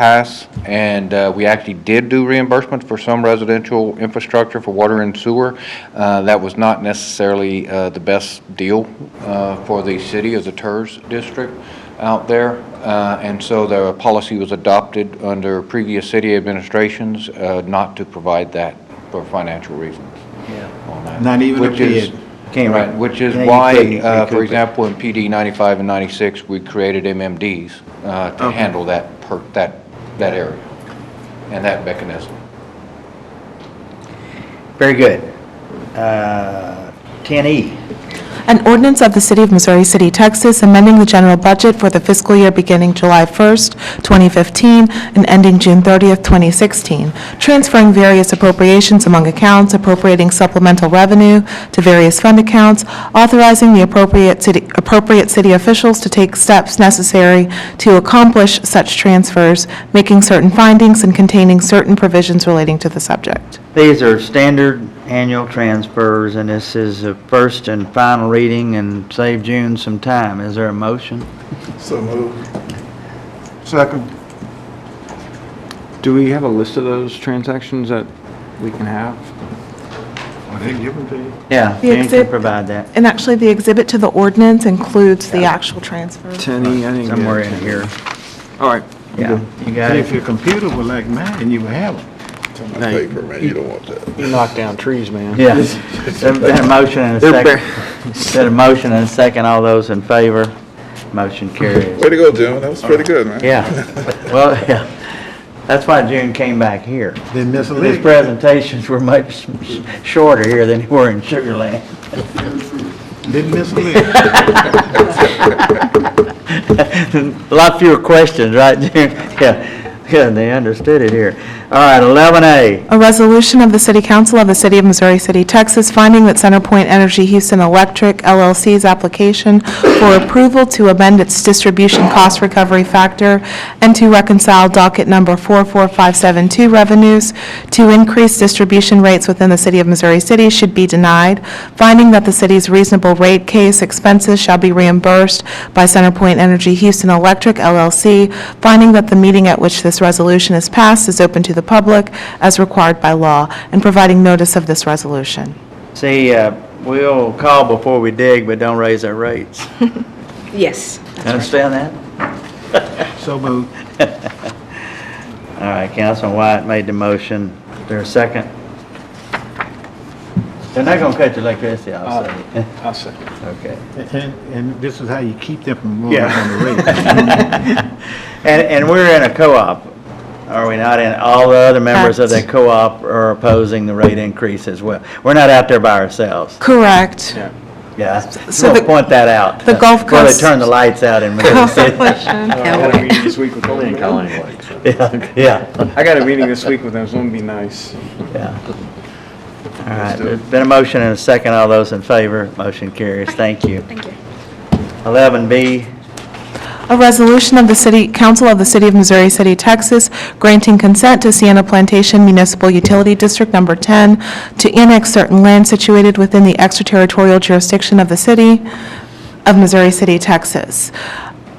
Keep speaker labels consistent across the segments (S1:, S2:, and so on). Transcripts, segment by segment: S1: pass, and uh, we actually did do reimbursement for some residential infrastructure for water and sewer. Uh, That was not necessarily uh, the best deal uh, for the city as a TERS district out there, Uh, and so the policy was adopted under previous city administrations uh, not to provide that for financial reasons on that.
S2: Not even a
S1: Which is-
S2: bid. Can't
S1: Right,
S2: re-
S1: which is
S2: Yeah, you
S1: why,
S2: couldn't
S1: uh,
S2: recoup
S1: for
S2: it.
S1: example, in PD 95 and 96, we created MMDs uh, to
S2: Okay.
S1: handle that, per- that, that area and that mechanism.
S2: Very good. Uh, 10E,
S3: An ordinance of the City of Missouri City, Texas, amending the general budget for the fiscal year beginning July 1st, 2015, and ending June 30th, 2016, transferring various appropriations among accounts, appropriating supplemental revenue to various fund accounts, authorizing the appropriate city, appropriate city officials to take steps necessary to accomplish such transfers, making certain findings and containing certain provisions relating to the subject.
S2: these are standard annual transfers, and this is a first and final reading and save June some time. Is there a motion?
S4: So moved. Second.
S5: Do we have a list of those transactions that we can have?
S4: I didn't give them to you.
S2: Yeah,
S3: The
S2: Dan can
S3: exhibit-
S2: provide that
S3: And actually, the exhibit to the ordinance includes the actual transfers.
S5: Tenny, I think.
S2: somewhere in here.
S5: All right.
S2: Yeah, you got
S4: If
S2: it.
S4: your computer was like mine, you would have them.
S5: Paper, man, you don't want that. You knock down trees, man.
S2: Yeah. There's been a motion and a
S5: They're
S2: second. Been a motion and a second. All those in favor? Motion carries.
S6: Way to go, Jim. That was pretty good, man.
S2: Yeah, well, yeah, that's why June came back here.
S4: They
S2: His
S4: mislead.
S2: presentations were much sh- shorter here than they were in Sugar Land.
S4: Didn't mislead.
S2: A lot fewer questions, right, June? Yeah, yeah, they understood it here. All right, 11A,
S3: A resolution of the City Council of the City of Missouri City, Texas, finding that CenterPoint Energy Houston Electric LLC's application for approval to amend its distribution cost recovery factor and to reconcile docket number 44572 revenues to increase distribution rates within the City of Missouri City should be denied, finding that the city's reasonable rate case expenses shall be reimbursed by CenterPoint Energy Houston Electric LLC, finding that the meeting at which this resolution is passed is open to the public as required by law, and providing notice of this resolution.
S2: see, uh, we'll call before we dig, but don't raise our rates.
S7: Yes.
S2: Understand that?
S4: So moved.
S2: All right, Councilman Wyatt made the motion. Is there a second? They're not gonna cut the electricity, I'll
S4: Uh,
S2: say.
S4: I'll second.
S2: Okay.
S4: And, and this is how you keep them from going
S2: Yeah.
S4: on the rate.
S2: And, and we're in a co-op, are we not? And all the other members of that
S3: Correct.
S2: co-op are opposing the rate increase as well. We're not out there by ourselves.
S3: Correct.
S2: Yeah,
S3: So
S2: we'll
S3: the-
S2: point that out.
S3: the Gulf
S2: Before they
S3: Coast-
S2: turn the lights out in Missouri City.
S7: Now,
S2: Yeah, Yeah,
S8: I got a meeting this week with them, so it'll be nice.
S2: yeah. All right, there's been a motion and a second. All those in favor, motion carries. Thank you.
S7: Thank you.
S2: 11B,
S3: A resolution of the City Council of the City of Missouri City, Texas, granting consent to Sienna Plantation Municipal Utility District Number 10 to annex certain land situated within the extraterritorial jurisdiction of the city of Missouri City, Texas.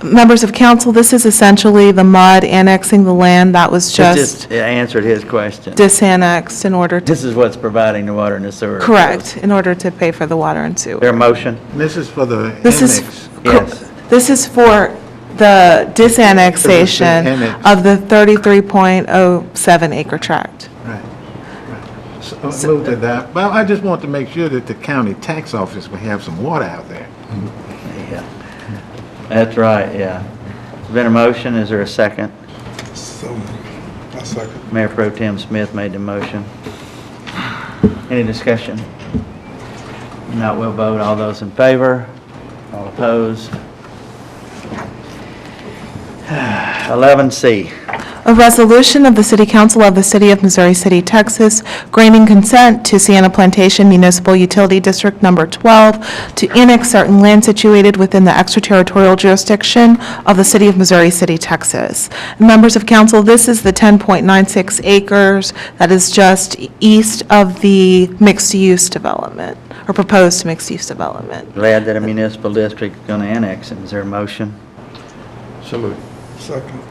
S3: Members of council, this is essentially the MUD annexing the land that was
S2: it
S3: just
S2: just answered his question.
S3: disannexed in order to,
S2: This is what's providing the water and the sewer.
S3: correct, in order to pay for the water and sewer.
S2: There a motion?
S4: This is for the
S3: This is-
S4: annex.
S2: Yes.
S3: This is for the disannexation
S4: Annex.
S3: of the 33.07 acre tract.
S4: Right. So I moved uh, to that. Well, I just want to make sure that the county tax office will have some water out there.
S2: Yeah, That's right, yeah. There's Been a motion, is there a second?
S6: So, I second.
S2: Mayor Pro Tem Smith made the motion. Any discussion? No, we'll vote, all those in favor, all opposed. 11C,
S3: A resolution of the City Council of the City of Missouri City, Texas, granting consent to Sienna Plantation Municipal Utility District Number 12 to annex certain land situated within the extraterritorial jurisdiction of the City of Missouri City, Texas. Members of council, this is the 10.96 acres that is just east of the mixed-use development, or proposed mixed-use development.
S2: glad that a municipal district is going to annex it, is there a motion?
S6: Second.